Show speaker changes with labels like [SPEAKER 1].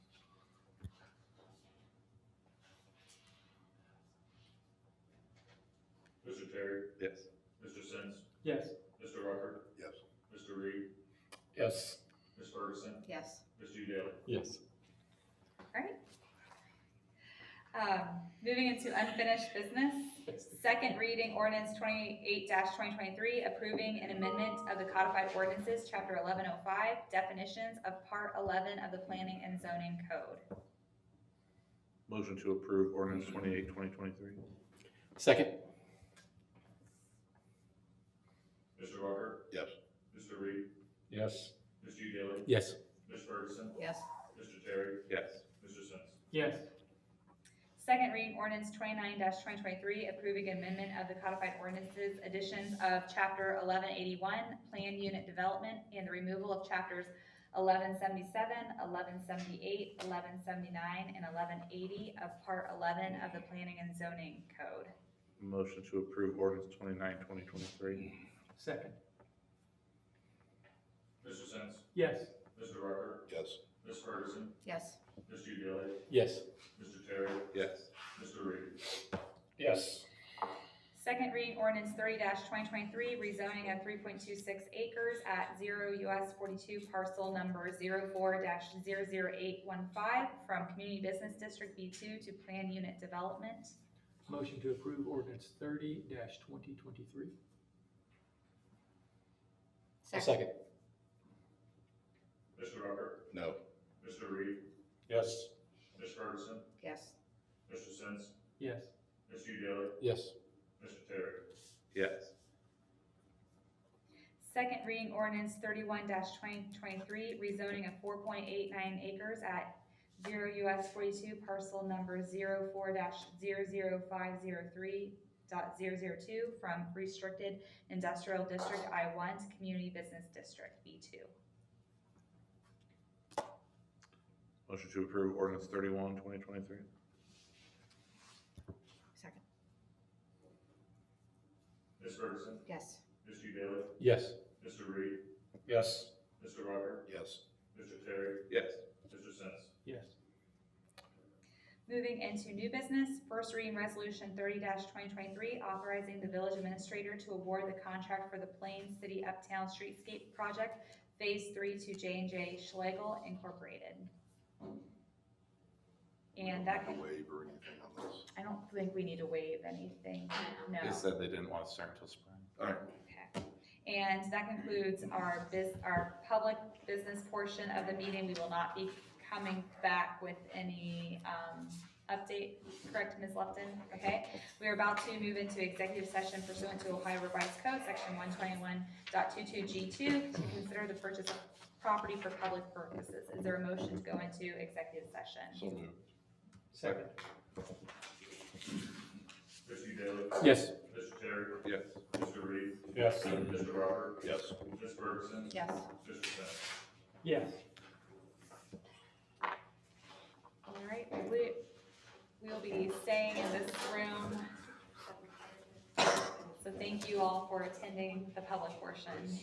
[SPEAKER 1] Terry,
[SPEAKER 2] Yes.
[SPEAKER 1] Mr. Sims,
[SPEAKER 3] Yes.
[SPEAKER 1] Mr. Rucker,
[SPEAKER 4] Yes.
[SPEAKER 1] Mr. Reed,
[SPEAKER 5] Yes.
[SPEAKER 1] Ms. Ferguson,
[SPEAKER 6] Yes.
[SPEAKER 1] Ms. Daly.
[SPEAKER 5] Yes.
[SPEAKER 6] Um, Moving into unfinished business, second reading ordinance twenty-eight twenty twenty-three, approving an amendment of the codified ordinances, chapter eleven oh five, definitions of part eleven of the planning and zoning code.
[SPEAKER 2] Motion to approve ordinance twenty-eight, twenty twenty-three?
[SPEAKER 5] Second?
[SPEAKER 1] Mr. Rucker,
[SPEAKER 4] Yes.
[SPEAKER 1] Mr. Reed,
[SPEAKER 5] Yes.
[SPEAKER 1] Ms. Daly,
[SPEAKER 5] Yes.
[SPEAKER 1] Ms. Ferguson,
[SPEAKER 6] Yes.
[SPEAKER 1] Mr. Terry,
[SPEAKER 2] Yes.
[SPEAKER 1] Mr. Sims,
[SPEAKER 3] Yes.
[SPEAKER 6] Second reading ordinance twenty-nine twenty twenty-three, approving amendment of the codified ordinances, additions of chapter eleven eighty-one, plan unit development, and the removal of chapters 1177, 1178, 1179, and eleven eighty of part eleven of the planning and zoning code.
[SPEAKER 2] Motion to approve ordinance twenty-nine, twenty twenty-three?
[SPEAKER 3] Second.
[SPEAKER 1] Mr. Sims,
[SPEAKER 3] Yes.
[SPEAKER 1] Mr. Rucker,
[SPEAKER 4] Yes.
[SPEAKER 1] Ms. Ferguson,
[SPEAKER 6] Yes.
[SPEAKER 1] Ms. Daly,
[SPEAKER 5] Yes.
[SPEAKER 1] Mr. Terry,
[SPEAKER 2] Yes.
[SPEAKER 1] Mr. Reed,
[SPEAKER 5] Yes.
[SPEAKER 6] Second reading ordinance thirty twenty twenty-three, rezoning of three point two six acres at zero US forty-two parcel number 4 815 from Community Business District B two to Plan Unit Development.
[SPEAKER 3] Motion to approve ordinance thirty twenty twenty-three.
[SPEAKER 5] Second?
[SPEAKER 1] Mr. Rucker,
[SPEAKER 4] No.
[SPEAKER 1] Mr. Reed,
[SPEAKER 5] Yes.
[SPEAKER 1] Ms. Ferguson,
[SPEAKER 6] Yes.
[SPEAKER 1] Mr. Sims,
[SPEAKER 3] Yes.
[SPEAKER 1] Ms. Daly,
[SPEAKER 5] Yes.
[SPEAKER 1] Mr. Terry,
[SPEAKER 2] Yes.
[SPEAKER 6] Second reading ordinance thirty-one twenty twenty-three, rezoning of four point eight nine acres at zero US forty-two parcel number 4 503 dot zero zero two from restricted industrial district I one to community business district B two.
[SPEAKER 2] Motion to approve ordinance thirty-one, twenty twenty-three?
[SPEAKER 6] Second.
[SPEAKER 1] Ms. Ferguson,
[SPEAKER 6] Yes.
[SPEAKER 1] Ms. Daly,
[SPEAKER 5] Yes.
[SPEAKER 1] Mr. Reed,
[SPEAKER 5] Yes.
[SPEAKER 1] Mr. Rucker,
[SPEAKER 4] Yes.
[SPEAKER 1] Mr. Terry,
[SPEAKER 2] Yes.
[SPEAKER 1] Mr. Sims,
[SPEAKER 3] Yes.
[SPEAKER 6] Moving into new business, first reading resolution thirty twenty twenty-three, authorizing the village administrator to award the contract for the Plain City Uptown Streetscape Project Phase Three to J and J Schlegel Incorporated. And that
[SPEAKER 4] No
[SPEAKER 6] can,
[SPEAKER 4] Waive or anything on this.
[SPEAKER 6] I don't think we need to waive anything, no.
[SPEAKER 2] They said they didn't want to start until spring.
[SPEAKER 4] All right.
[SPEAKER 6] Okay. And that concludes our bus, our public business portion of the meeting. We will not be coming back with any, um, update, correct, Ms. Lupton? Okay? We are about to move into executive session pursuant to Ohio Revised Code, section one twenty-one G two, to consider the purchase of property for public purposes. Is there a motion to go into executive session?
[SPEAKER 4] So moved.
[SPEAKER 3] Second.
[SPEAKER 1] Ms. Daly,
[SPEAKER 5] Yes.
[SPEAKER 1] Mr. Terry,
[SPEAKER 2] Yes.
[SPEAKER 1] Mr. Reed,
[SPEAKER 5] Yes.
[SPEAKER 1] Mr. Rucker,
[SPEAKER 4] Yes.
[SPEAKER 1] Ms. Ferguson,
[SPEAKER 6] Yes.
[SPEAKER 1] Mr. Sims.
[SPEAKER 3] Yes.
[SPEAKER 6] All right, we, we'll be staying in this room. So thank you all for attending the public portion.